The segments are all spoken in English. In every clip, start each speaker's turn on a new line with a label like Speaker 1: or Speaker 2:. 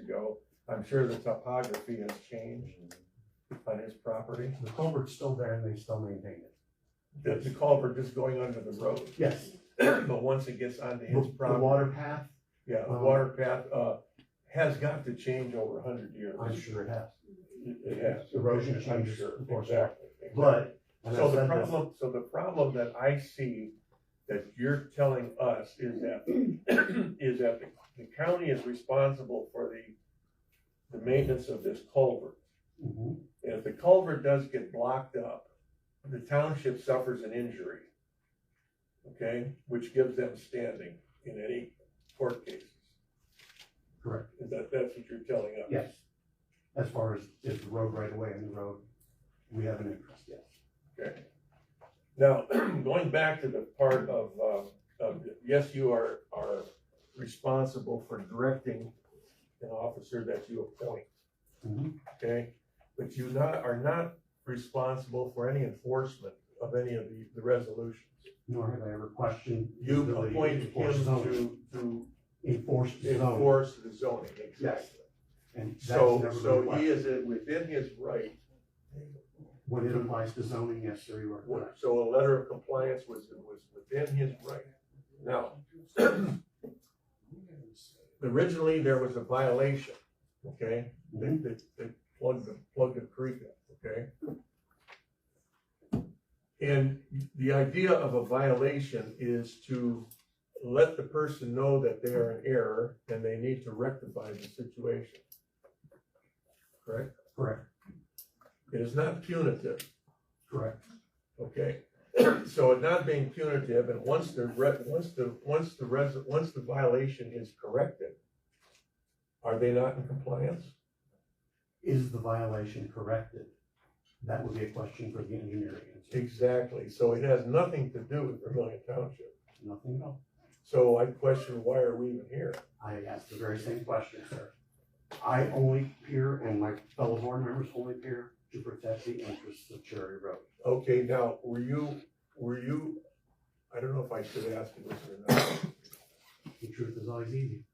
Speaker 1: ago. I'm sure the topography has changed on his property.
Speaker 2: The culvert's still there and they still maintain it.
Speaker 1: The the culvert is going under the road,
Speaker 2: Yes.
Speaker 1: but once it gets onto
Speaker 2: The
Speaker 1: his
Speaker 2: the
Speaker 1: property,
Speaker 2: water path,
Speaker 1: yeah, the
Speaker 2: um,
Speaker 1: water path, uh, has got to change over a hundred years.
Speaker 2: I'm sure it has.
Speaker 1: It it has.
Speaker 2: Erosion
Speaker 1: I'm
Speaker 2: changes,
Speaker 1: sure.
Speaker 2: of course.
Speaker 1: Exactly.
Speaker 2: But- And
Speaker 1: So
Speaker 2: I've
Speaker 1: the
Speaker 2: said this,
Speaker 1: problem, so the problem that I see that you're telling us is that, is that the- the county is responsible for the, the maintenance of this culvert.
Speaker 2: mhm,
Speaker 1: And if the culvert does get blocked up, the township suffers an injury. Okay, which gives them standing in any court cases.
Speaker 2: Correct,
Speaker 1: Is that, that's what you're telling us?
Speaker 2: yes. As far as if the road right away and the road, we have an interest, yes.
Speaker 1: Okay. Now, going back to the part of, uh, of, yes, you are, are responsible for directing an officer that you appoint,
Speaker 2: Mhm,
Speaker 1: okay? But you not, are not responsible for any enforcement of any of the, the resolutions.
Speaker 2: Nor have I ever questioned. the
Speaker 1: You
Speaker 2: ability to
Speaker 1: appoint him
Speaker 2: enforce zoning.
Speaker 1: to, to
Speaker 2: Enforce the zone,
Speaker 1: enforce the zoning, exactly.
Speaker 2: and that's
Speaker 1: So,
Speaker 2: never been
Speaker 1: so he
Speaker 2: questioned.
Speaker 1: is within his right,
Speaker 2: When it applies to zoning, yes, sir, you are correct.
Speaker 1: so a letter of compliance was, was within his right. Now, originally, there was a violation, okay? They,
Speaker 2: Mhm,
Speaker 1: they, they plugged the, plugged the creek in, okay? And the idea of a violation is to let the person know that they are in error and they need to rectify the situation. Correct?
Speaker 2: Correct,
Speaker 1: It is not punitive,
Speaker 2: correct,
Speaker 1: okay? So it not being punitive, and once the re, once the, once the res, once the violation is corrected, are they not in compliance?
Speaker 2: is the violation corrected? That would be a question for the engineering, answer.
Speaker 1: Exactly, so it has nothing to do with Vermillion Township.
Speaker 2: nothing at all.
Speaker 1: So I question, why are we even here?
Speaker 2: I asked the very same question, sir. I only peer and my fellow board members only peer to protect the interests of Cherry Road.
Speaker 1: Okay, now, were you, were you, I don't know if I should ask you this or
Speaker 2: The truth is always easy.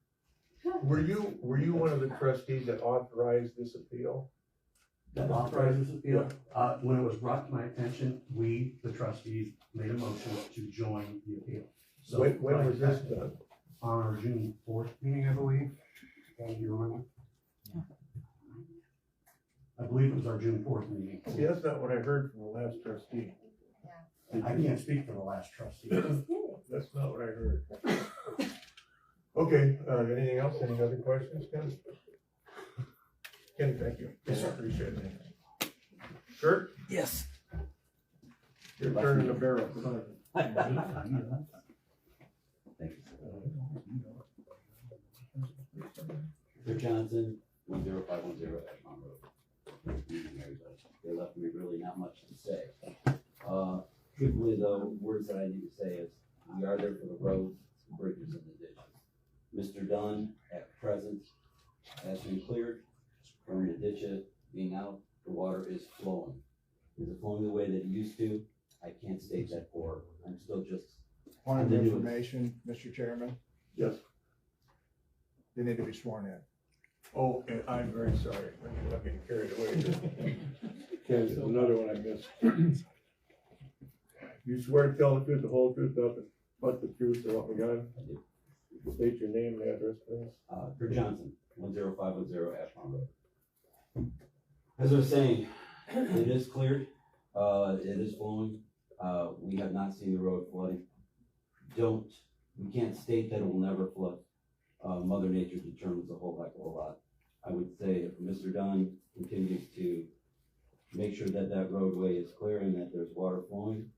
Speaker 1: not. Were you, were you one of the trustees that authorized this appeal?
Speaker 2: That authorizes appeal. Uh, when it was brought to my attention, we, the trustees, made a motion to join the appeal. So
Speaker 1: When, when was this done?
Speaker 2: On our June fourth meeting, I believe. Uh, Do you remember? I believe it was our June fourth meeting.
Speaker 1: See, that's not what I heard from the last trustee.
Speaker 2: I can't speak for the last trustee.
Speaker 1: That's not what I heard. Okay, uh, anything else, any other questions, Ken? Ken, thank you.
Speaker 2: Yes, sir.
Speaker 1: Appreciate it. Kurt,
Speaker 3: Yes.
Speaker 1: you're turning the barrel.
Speaker 4: Rick Johnson, one zero five one zero Edmond Road. Meeting everybody. They left me really not much to say. Uh, truthfully though, words that I need to say is, we are there for the roads, the bridges and the ditches. Mr. Dunn, at present, has been cleared from the ditches being out, the water is flowing. Is it flowing the way that it used to? I can't state that for, I'm still just,
Speaker 5: Point of
Speaker 4: Then you-
Speaker 5: information, Mr. Chairman,
Speaker 1: Yes.
Speaker 5: they need to be sworn in.
Speaker 1: Oh, and I'm very sorry, I'm getting carried away. Ken, there's another one I missed. You swear to tell the truth, the whole truth, nothing but the truth, so help me God? State your name and address, please.
Speaker 4: Uh, Kurt Johnson, one zero five one zero Ashmont Road. As I was saying, it is cleared, uh, it is flowing, uh, we have not seen the road flooding. Don't, we can't state that it will never flood, uh, Mother Nature determines a whole heck of a lot. I would say if Mr. Dunn continues to make sure that that roadway is clear and that there's water flowing,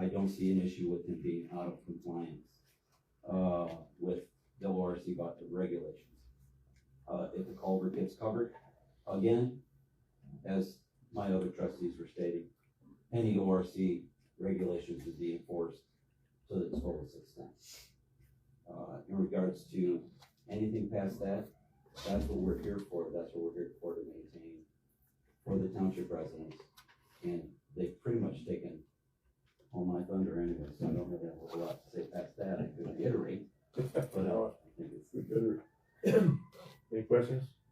Speaker 4: I don't see an issue with it being out of compliance, uh, with the ORC about the regulations. Uh, if the culvert gets covered, again, as my other trustees were stating, any ORC regulations would be enforced to the fullest extent. Uh, in regards to anything past that, that's what we're here for, that's what we're here for to maintain for the township residents. And they've pretty much taken all my thunder anyway, so I don't really have a whole lot to say past that, I could reiterate, but, uh, I think it's
Speaker 1: Any questions?